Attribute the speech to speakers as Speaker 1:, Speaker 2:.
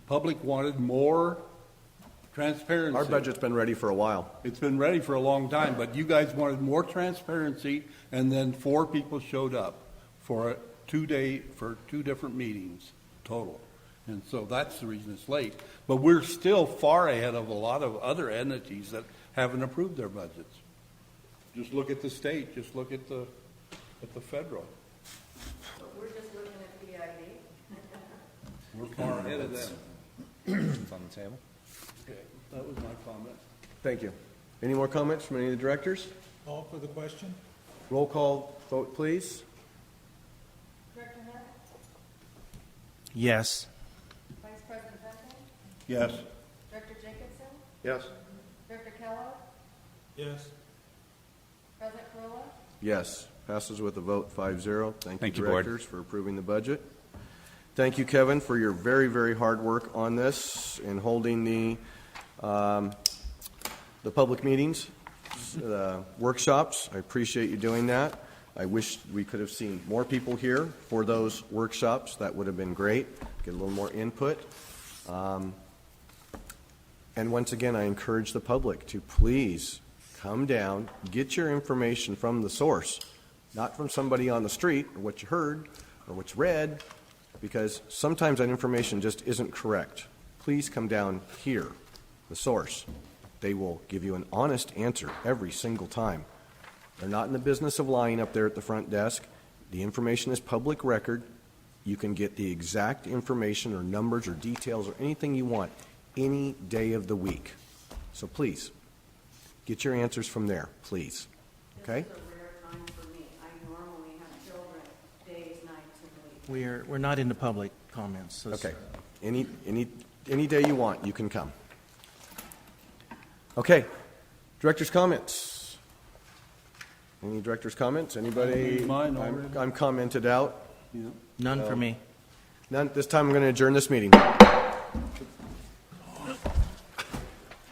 Speaker 1: Public wanted more transparency.
Speaker 2: Our budget's been ready for a while.
Speaker 1: It's been ready for a long time, but you guys wanted more transparency, and then four people showed up for a two-day, for two different meetings total. And so that's the reason it's late. But we're still far ahead of a lot of other entities that haven't approved their budgets. Just look at the state, just look at the, at the federal.
Speaker 3: We're just looking at PID.
Speaker 1: We're far ahead of them.
Speaker 4: It's on the table.
Speaker 1: Okay, That was my comment.
Speaker 2: Thank you. Any more comments from any of the directors?
Speaker 5: Call for the question?
Speaker 2: Roll call vote, please.
Speaker 3: Director Hunt,
Speaker 4: Yes.
Speaker 3: Vice President Duncan,
Speaker 1: Yes.
Speaker 3: Director Jacobson,
Speaker 2: Yes.
Speaker 3: Director Kellogg,
Speaker 5: Yes.
Speaker 3: President Corolla,
Speaker 2: Yes. Passes with a vote 5-0. Thank you,
Speaker 4: Thank you, Board.
Speaker 2: directors, for approving the budget. Thank you, Kevin, for your very, very hard work on this and holding the, um, the public meetings, uh, workshops. I appreciate you doing that. I wish we could have seen more people here for those workshops. That would have been great. Get a little more input. And once again, I encourage the public to please come down, get your information from the source, not from somebody on the street or what you heard or what you read, because sometimes that information just isn't correct. Please come down here, the source. They will give you an honest answer every single time. They're not in the business of lying up there at the front desk. The information is public record. You can get the exact information or numbers or details or anything you want any day of the week. So please, get your answers from there, please. Okay?
Speaker 3: This is a rare time for me. I normally have children days, nights, and weeks.
Speaker 6: We are, we're not into public comments. so-
Speaker 2: Okay. Any, any, any day you want, you can come. Okay. Director's comments. Any director's comments? Anybody?
Speaker 1: Mine
Speaker 2: I'm-
Speaker 1: already.
Speaker 2: I'm commented out.
Speaker 6: None for me.
Speaker 2: None, this time I'm going to adjourn this meeting.